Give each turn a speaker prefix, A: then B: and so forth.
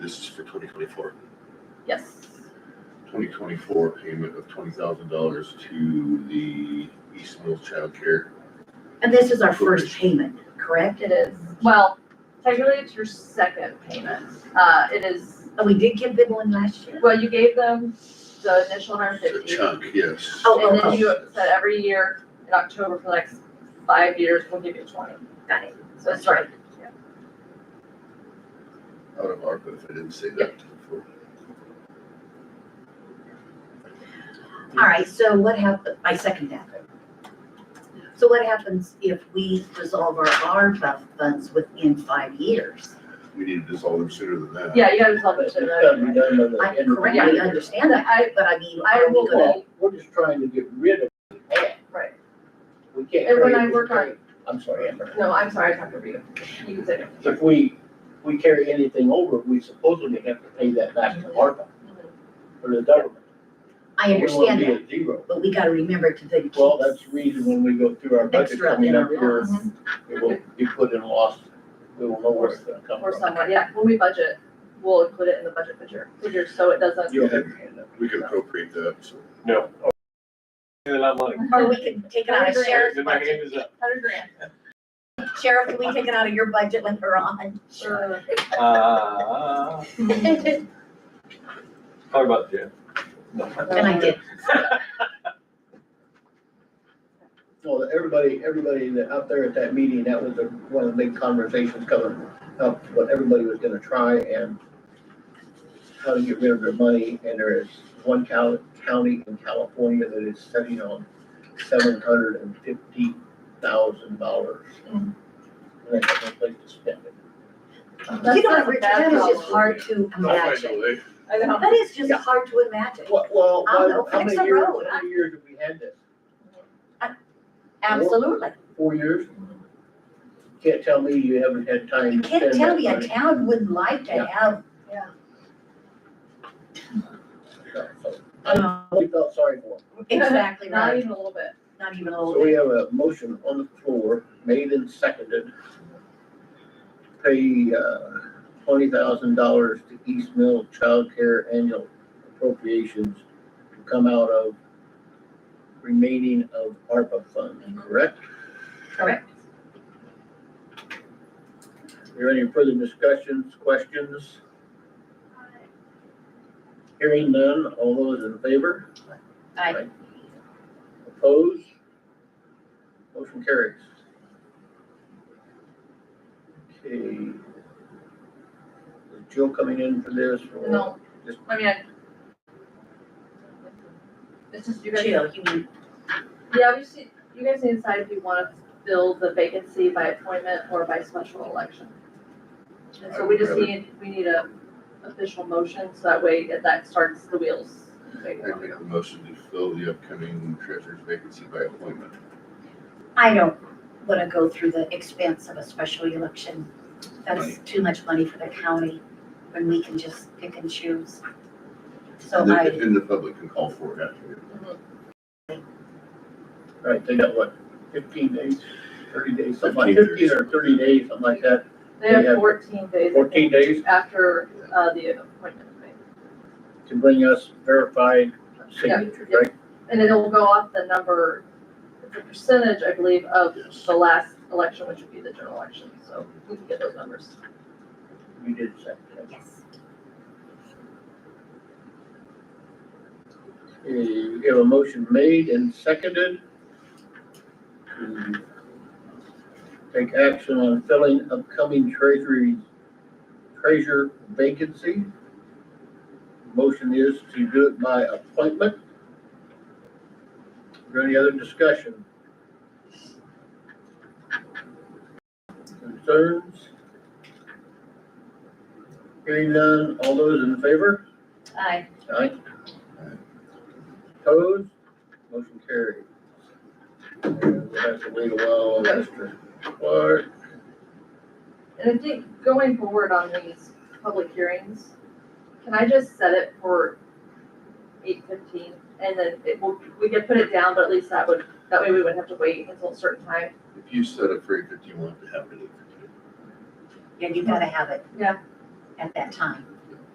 A: This is for twenty twenty-four.
B: Yes.
A: Twenty twenty-four payment of twenty thousand dollars to the East Mills Child Care.
C: And this is our first payment, correct?
B: It is, well, technically it's your second payment. Uh, it is,
C: And we did give them one last year?
B: well, you gave them the initial hundred
A: The
B: fifty.
A: chunk, yes.
C: Oh,
B: And then you said every year in October for the next five years, we'll give you twenty.
C: Got it.
B: So it's right.
A: Out of ARPA, if I didn't say that before.
C: All right, so what happened, I second that. So what happens if we dissolve our ARPA funds within five years?
A: We need to dissolve them sooner than that.
B: Yeah, you gotta tell them.
D: It's gotta be done
C: I
D: by the end of the
C: correctly
D: year.
C: understand that,
B: I,
C: but I mean,
B: I
C: are we
B: will-
C: gonna,
D: Well, We're just trying to get rid of it.
B: right.
D: We can't.
B: And when
D: carry
B: I
D: it.
B: work on-
D: I'm sorry, Amber.
B: No, I'm sorry, I talked over you. You can say it.
D: If we, we carry anything over, we supposedly have to pay that back to ARPA or the government.
C: I understand
D: We
C: that,
D: won't be at zero.
C: but we gotta remember to then
D: Well,
C: keep
D: that's the reason when we go through our budget
C: extra
D: coming
C: in
D: up
C: our
D: here,
C: loss.
D: it will be put in loss. We will know where it's gonna come
B: Mm-hmm. Or
D: from.
B: someone, yeah, when we budget, we'll include it in the budget for your, for your, so it doesn't.
D: You'll have your hand up.
A: We can appropriate that, so.
E: No. They're not money.
C: Or we can take it out of sheriff's
E: My
C: budget.
E: hand is up.
B: Hundred grand.
C: Sheriff, can we take it out of your budget later on?
B: Sure.
E: Uh,
C: And
E: talk about Jim.
C: I did,
D: Well, everybody, everybody that out there at that meeting, that was a- one of the big conversations coming up, what everybody was gonna try and how to get rid of their money, and there is one county, county in California that is sitting on seven hundred and fifty thousand dollars.
C: Hmm.
D: And they have no place to spend it.
C: you know, what, Rich, that is just
B: problem.
C: hard to imagine,
B: I know.
C: that is just hard to imagine.
D: Well, well,
C: I don't know,
D: how
C: fix
D: many
C: a
D: years,
C: road.
D: how many years have we had this?
C: Absolutely.
D: Four years?
C: Hmm.
D: Can't tell me you haven't had time
C: You
D: to spend that
C: can't tell me a
D: money.
C: town would like to
D: Yeah.
C: have,
D: I really felt sorry for him.
C: exactly
B: Not
C: right,
B: even a little bit.
C: not even a
D: So
C: little
D: we
C: bit.
D: have a motion on the floor, made and seconded. Pay, uh, twenty thousand dollars to East Mill Child Care annual appropriations to come out of remaining of ARPA funds, correct?
C: Correct.
D: Are there any further discussions, questions? Hearing none, all those in favor?
C: Aye.
D: Opposed? Motion carries. Okay. Is Jill coming in for this or?
B: No,
D: Just-
B: I mean, I. It's just you guys.
C: Jill, you mean,
B: Yeah, we just, need- you guys need to decide if you wanna fill the vacancy by appointment or by special election. And so we just need, we need a official motion, so that way that- that starts the wheels.
A: I make a motion to fill the upcoming treasurer's vacancy by appointment.
C: I don't wanna go through the expense of a special election. That's too much money for the county when we can just pick and choose. So
A: And the-
C: I,
A: And the public can call for it after.
D: All right, they got what, fifteen days, thirty days, something like,
A: 15 days.
D: fifteen or thirty days, something like that,
B: They have
D: Yeah.
B: fourteen days. I
D: fourteen
B: think,
D: days
B: After, uh, the appointment, right?
D: to bring us verified signatures,
B: yeah.
D: right?
B: and it'll go off the number, the percentage, I believe, of the last election, which would be the general election, so we can get those numbers.
D: You did say that.
C: yes,
D: Okay, We have a motion made and seconded to take action on filling upcoming treasury, treasurer vacancy. Motion is to do it by appointment. Is there any other discussion? Concerns? Hearing none, all those in favor?
C: I,
D: Aye. Opposed? Motion carried. We'll have to wait a while on Mr. Clark.
B: And I think going forward on these public hearings, can I just set it for eight fifteen? And then it will, we could put it down, but at least that would, that way we wouldn't have to wait until a certain time.
A: If you set up for eight fifty, you want it to happen at eight fifty.
C: yeah, you gotta have it
B: Yeah.
C: at that time.